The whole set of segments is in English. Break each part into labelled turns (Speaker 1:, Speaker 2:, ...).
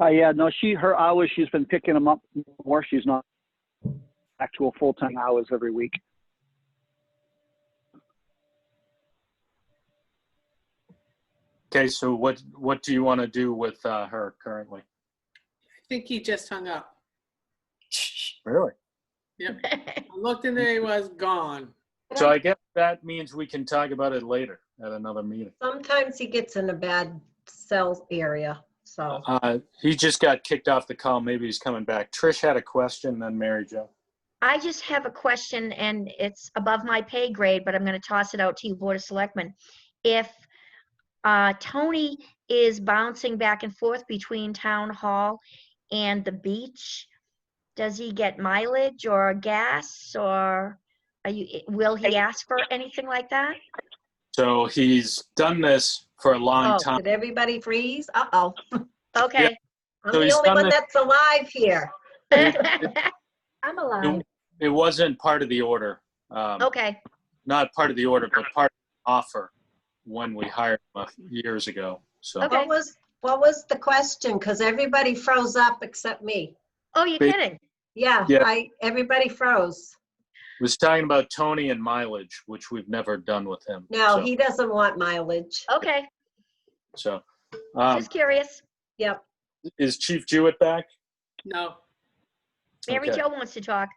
Speaker 1: Uh, yeah, no, she, her hours, she's been picking them up more. She's not actual full-time hours every week.
Speaker 2: Okay, so what, what do you want to do with uh, her currently?
Speaker 3: I think he just hung up.
Speaker 2: Really?
Speaker 3: Yep. I looked and there he was gone.
Speaker 2: So I guess that means we can talk about it later at another meeting.
Speaker 4: Sometimes he gets in a bad cell area, so.
Speaker 2: Uh, He just got kicked off the call. Maybe he's coming back. Trish had a question, then Mary Jo.
Speaker 5: I just have a question, and it's above my pay grade, but I'm gonna toss it out to you, Board of Selectmen. If uh, Tony is bouncing back and forth between Town Hall and the beach, does he get mileage or gas, or are you, i- will he ask for anything like that?
Speaker 2: So he's done this for a long
Speaker 4: Oh,
Speaker 2: time.
Speaker 4: Did everybody freeze? Uh-oh.
Speaker 5: Okay.
Speaker 4: I'm
Speaker 2: So
Speaker 4: the
Speaker 2: he's
Speaker 4: only
Speaker 2: done
Speaker 4: one
Speaker 2: this-
Speaker 4: that's alive here.
Speaker 5: I'm allowed.
Speaker 2: It wasn't part of the order. um,
Speaker 5: Okay,
Speaker 2: Not part of the order, but part of the offer when we hired him a few years ago. So
Speaker 5: Okay.
Speaker 4: What was, what was the question? Because everybody froze up except me.
Speaker 5: oh, you're
Speaker 2: Ba-
Speaker 5: kidding?
Speaker 4: Yeah,
Speaker 2: Yeah.
Speaker 4: I, everybody froze.
Speaker 2: was talking about Tony and mileage, which we've never done with him.
Speaker 4: No,
Speaker 2: So-
Speaker 4: he doesn't want mileage.
Speaker 5: Okay,
Speaker 2: So, um,
Speaker 5: just curious.
Speaker 4: Yep.
Speaker 2: is Chief Jewett back?
Speaker 3: No.
Speaker 5: Mary
Speaker 2: Okay.
Speaker 5: Jo wants to talk.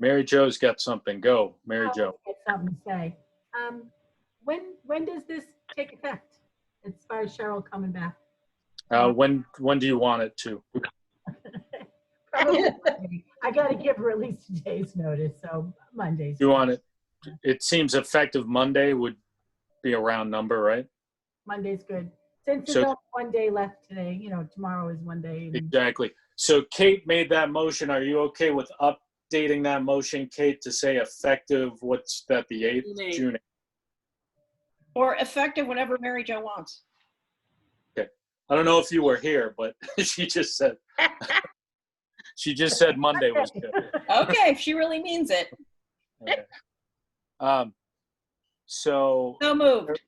Speaker 2: Mary Jo's got something. Go, Mary Jo.
Speaker 6: Got something to say. Um, When, when does this take effect as far as Cheryl coming back?
Speaker 4: Oh.
Speaker 2: Uh, when when do you want it to?
Speaker 6: Probably Monday. I gotta give her at least a day's notice, so Monday's.
Speaker 2: You want it? It seems effective Monday would be a round number, right?
Speaker 4: Mm-hmm.
Speaker 6: Monday's good. Since there's
Speaker 2: So-
Speaker 6: only one day left today, you know, tomorrow is one day. and-
Speaker 2: Exactly. So Kate made that motion. Are you okay with updating that motion, Kate, to say effective? What's that? The eighth,
Speaker 3: June eighth.
Speaker 2: June. 8th?
Speaker 7: Or effective whenever Mary Jo wants.
Speaker 2: I don't know if you were here, but she just said she just said Monday was good.
Speaker 7: Okay, if she really means it.
Speaker 2: Okay. Um, so
Speaker 7: So moved.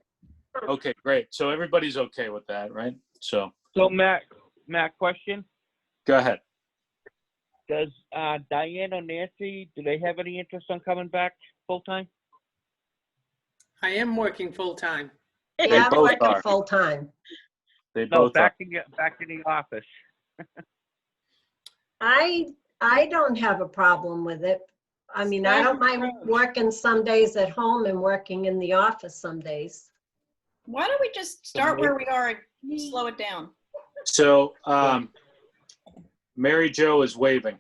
Speaker 2: Okay, great. So everybody's okay with that, right? So
Speaker 8: So Matt, Matt, question:
Speaker 2: go ahead.
Speaker 8: Does uh, Diane or Nancy do they have any interest on coming back full time?
Speaker 3: I am working full-time.
Speaker 4: Yeah, I'm
Speaker 2: both
Speaker 4: working
Speaker 2: are.
Speaker 4: Full-time.
Speaker 2: They
Speaker 8: No,
Speaker 2: both are.
Speaker 8: back to the- back to the office.
Speaker 4: I, I don't have a problem with it. I mean, I don't mind working some days at home and working in the office some days.
Speaker 7: Why don't we just start where we are and slow it down?
Speaker 2: So um, Mary Jo is waving.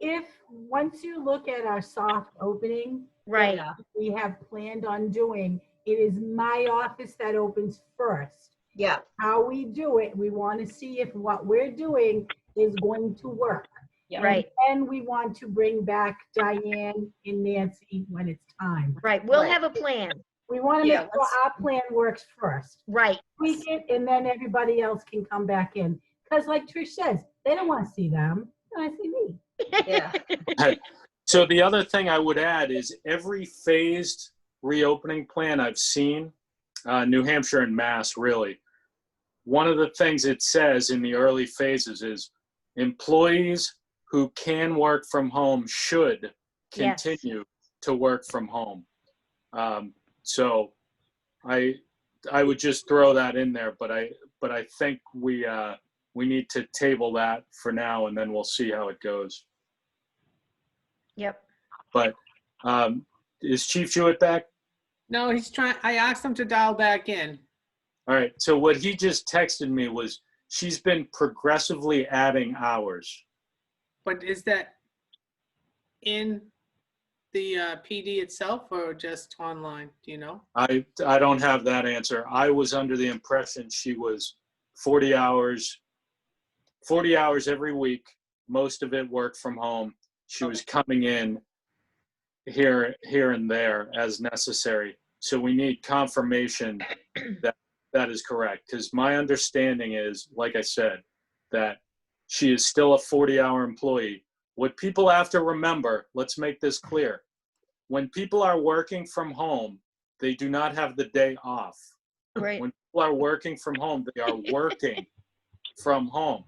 Speaker 6: If, once you look at our soft opening,
Speaker 5: Right.
Speaker 4: Yeah,
Speaker 6: we have planned on doing, it is my office that opens first.
Speaker 4: Yeah,
Speaker 6: How we do it, we want to see if what we're doing is going to work.
Speaker 7: Yeah.
Speaker 5: Right,
Speaker 6: And we want to bring back Diane and Nancy when it's time.
Speaker 5: right. We'll
Speaker 7: Right.
Speaker 5: have a plan.
Speaker 6: We want to make
Speaker 7: Yeah,
Speaker 6: sure
Speaker 7: let's-
Speaker 6: our plan works first.
Speaker 5: Right,
Speaker 6: Tweak it, and then everybody else can come back in. Because like Trish says, they don't want to see them. They want to see me.
Speaker 4: yeah.
Speaker 2: So the other thing I would add is every phased reopening plan I've seen, uh, New Hampshire and Mass really, one of the things it says in the early phases is employees who can work from home should
Speaker 5: Yes.
Speaker 2: continue to work from home. Um, so I I would just throw that in there, but I but I think we uh, we need to table that for now, and then we'll see how it goes.
Speaker 5: yep.
Speaker 2: Um, is Chief Jewett back?
Speaker 3: No, he's trying, I asked him to dial back in.
Speaker 2: All right. So what he just texted me was she's been progressively adding hours.
Speaker 3: But is that in the uh, PD itself or just online? Do you know?
Speaker 2: I I don't have that answer. I was under the impression she was 40 hours, 40 hours every week. Most of it work from home. She was coming in here here and there as necessary. So we need confirmation that that is correct. Because my understanding is, like I said, that she is still a 40 hour employee. What people have to remember, let's make this clear. When people are working from home, they do not have the day off.
Speaker 5: Right.
Speaker 2: When people are working from home, they are working from home.